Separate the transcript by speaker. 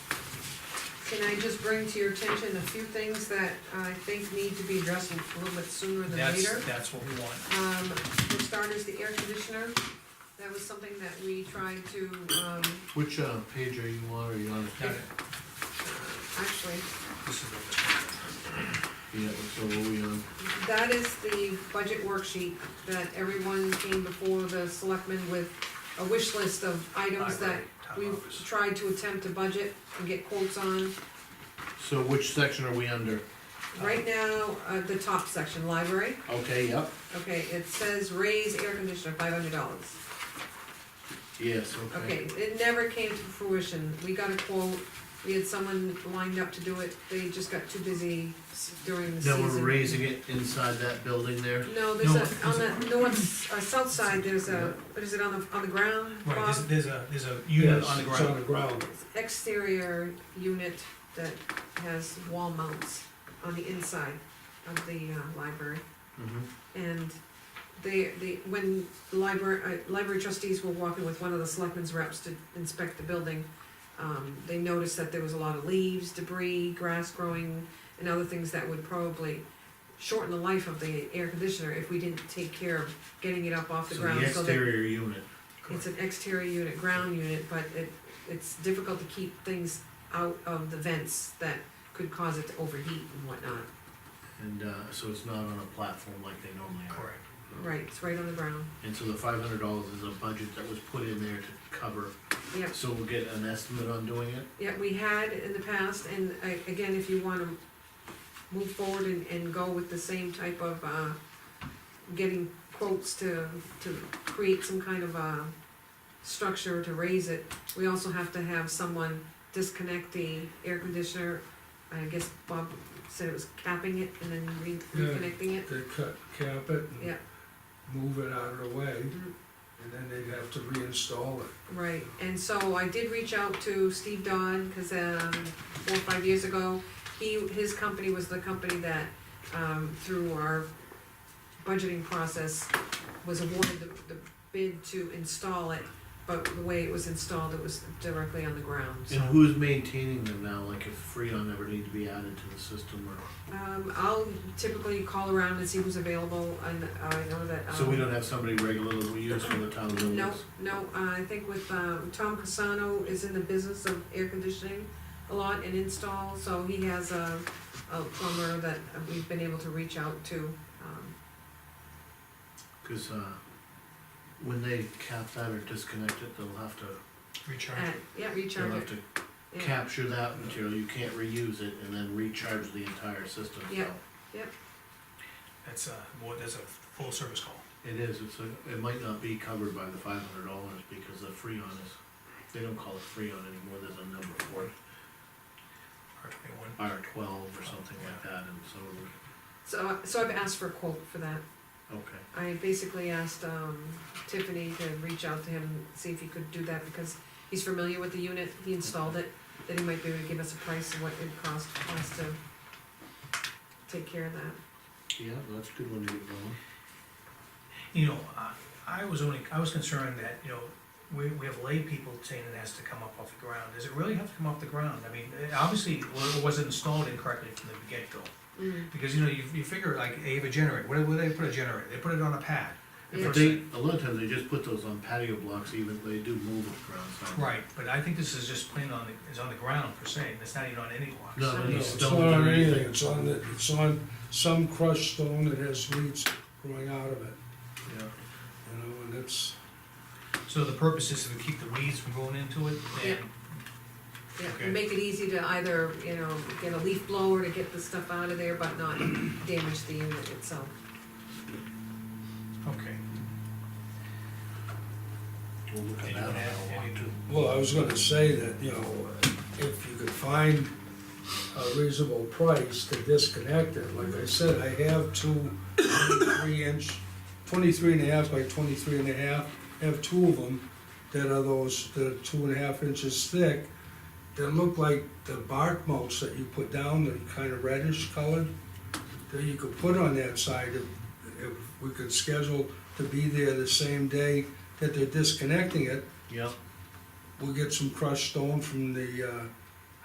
Speaker 1: Can I just bring to your attention a few things that I think need to be addressed a little bit sooner than later?
Speaker 2: That's, that's what we want.
Speaker 1: Um, for starters, the air conditioner, that was something that we tried to, um,
Speaker 3: Which, uh, page are you on, are you on?
Speaker 2: Got it.
Speaker 1: actually,
Speaker 2: This is what
Speaker 3: Yeah, so what are we on?
Speaker 1: that is the budget worksheet that everyone came before the selectmen with a wish list of items that
Speaker 2: Library, town
Speaker 1: we've
Speaker 2: office.
Speaker 1: tried to attempt to budget and get quotes on.
Speaker 3: So which section are we under?
Speaker 1: Right now, uh, the top section, library,
Speaker 3: Okay, yep.
Speaker 1: okay, it says raise air conditioner, five hundred dollars.
Speaker 3: Yes,
Speaker 1: Okay,
Speaker 3: okay.
Speaker 1: it never came to fruition, we got a quote, we had someone lined up to do it, they just got too busy s- during the
Speaker 3: Now
Speaker 1: season.
Speaker 3: we're raising it inside that building there?
Speaker 1: No, there's a,
Speaker 2: No,
Speaker 1: on the north, uh, south side, there's a, what is it, on the, on the ground,
Speaker 2: Right,
Speaker 1: Bob?
Speaker 2: there's, there's a, there's a unit
Speaker 4: Yes,
Speaker 2: on the
Speaker 4: it's
Speaker 2: ground.
Speaker 1: Exterior unit that has wall mounts on the inside of the, uh, library.
Speaker 3: Mhm.
Speaker 1: And they, they, when the library, uh, library trustees were walking with one of the selectmen's reps to inspect the building, um, they noticed that there was a lot of leaves, debris, grass growing, and other things that would probably shorten the life of the air conditioner if we didn't take care of getting it up off the
Speaker 3: So the
Speaker 1: ground, so that
Speaker 3: exterior unit.
Speaker 1: it's an exterior unit, ground unit, but it, it's difficult to keep things out of the vents that could cause it to overheat and whatnot.
Speaker 3: And, uh, so it's not on a platform like they normally are.
Speaker 2: Correct.
Speaker 3: Oh.
Speaker 1: Right, it's right on the ground.
Speaker 3: And so the five hundred dollars is a budget that was put in there to cover.
Speaker 1: Yep.
Speaker 3: So we'll get an estimate on doing it?
Speaker 1: Yeah, we had in the past, and I, again, if you wanna move forward and, and go with the same type of, uh, getting quotes to, to create some kind of, uh, structure to raise it, we also have to have someone disconnect the air conditioner. I guess Bob said it was capping it and then re-
Speaker 4: Yeah.
Speaker 1: reconnecting it.
Speaker 4: They cut, cap it
Speaker 1: Yeah.
Speaker 4: and move it out of the way,
Speaker 1: Mhm.
Speaker 4: and then they'd have to reinstall it.
Speaker 1: Right, and so I did reach out to Steve Don, cause um, four or five years ago, he, his company was the company that, um, through our budgeting process, was awarded the, the bid to install it, but the way it was installed, it was directly on the ground, so.
Speaker 3: And who's maintaining them now, like if Freon ever need to be added to the system or,
Speaker 1: Um, I'll typically call around and see who's available, and I know that, um.
Speaker 3: so we don't have somebody regular that we use for the town buildings?
Speaker 1: No, no, uh, I think with, um, Tom Casano is in the business of air conditioning a lot and install, so he has a, a plumber that we've been able to reach out to. um,
Speaker 3: Cause, uh, when they cap that or disconnect it, they'll have to,
Speaker 2: Recharge.
Speaker 1: And, yeah, reach
Speaker 3: they'll
Speaker 1: out,
Speaker 3: have to
Speaker 1: yeah.
Speaker 3: capture that material, you can't reuse it and then recharge the entire system, so.
Speaker 1: Yeah. Yep.
Speaker 2: That's a, well, that's a full service call.
Speaker 3: It is, it's a, it might not be covered by the five hundred dollars because the Freon is, they don't call it Freon anymore, there's a number for it,
Speaker 2: R twenty-one.
Speaker 3: R twelve or something like that, and so, it
Speaker 1: So, so I've asked for a quote for that.
Speaker 3: would- okay.
Speaker 1: I basically asked, um, Tiffany to reach out to him, see if he could do that, because he's familiar with the unit, he installed it, that he might be able to give us a price of what it would cost us to take care of that.
Speaker 3: Yeah, that's a good one to get going.
Speaker 2: You know, I- I was only, I was concerned that, you know, we, we have lay people saying it has to come up off the ground. Does it really have to come off the ground? I mean, it obviously, wa- it wasn't installed incorrectly from the get-go.
Speaker 1: Mm.
Speaker 2: Because, you know, you, you figure like, they have a generator, where, where they put a generator? They put it on a pad. They
Speaker 1: Yeah.
Speaker 3: But
Speaker 2: put
Speaker 3: they,
Speaker 2: it-
Speaker 3: a lot of times they just put those on patio blocks, even, they do move it around, so.
Speaker 2: Right, but I think this is just plain on, the is on the ground per se, and it's not even on any blocks.
Speaker 3: No,
Speaker 1: No,
Speaker 3: no,
Speaker 4: It's not
Speaker 3: stones
Speaker 4: on
Speaker 3: or
Speaker 4: anything, it's on, the- it's on some crushed stone that has leaves growing out of it,
Speaker 3: Yeah.
Speaker 4: you know, and it's,
Speaker 2: So the purpose is to keep the weeds from going into it and.
Speaker 1: Yeah,
Speaker 2: Okay.
Speaker 1: make it easy to either, you know, get a leaf blower to get the stuff out of there, but not damage the unit itself.
Speaker 2: Okay.
Speaker 3: We'll look at
Speaker 2: Anyone
Speaker 3: that on
Speaker 2: have
Speaker 3: that
Speaker 2: any-
Speaker 3: one too.
Speaker 4: well, I was gonna say that, you know, if you could find a reasonable price to disconnect it, like I said, I have two three inch, twenty-three and a half by twenty-three and a half, I have two of them that are those, that are two and a half inches thick, that look like the bark mulch that you put down, they're kind of reddish colored, that you could put on that side if, if we could schedule to be there the same day that they're disconnecting it,
Speaker 3: Yep,
Speaker 4: we'll get some crushed stone from the, uh,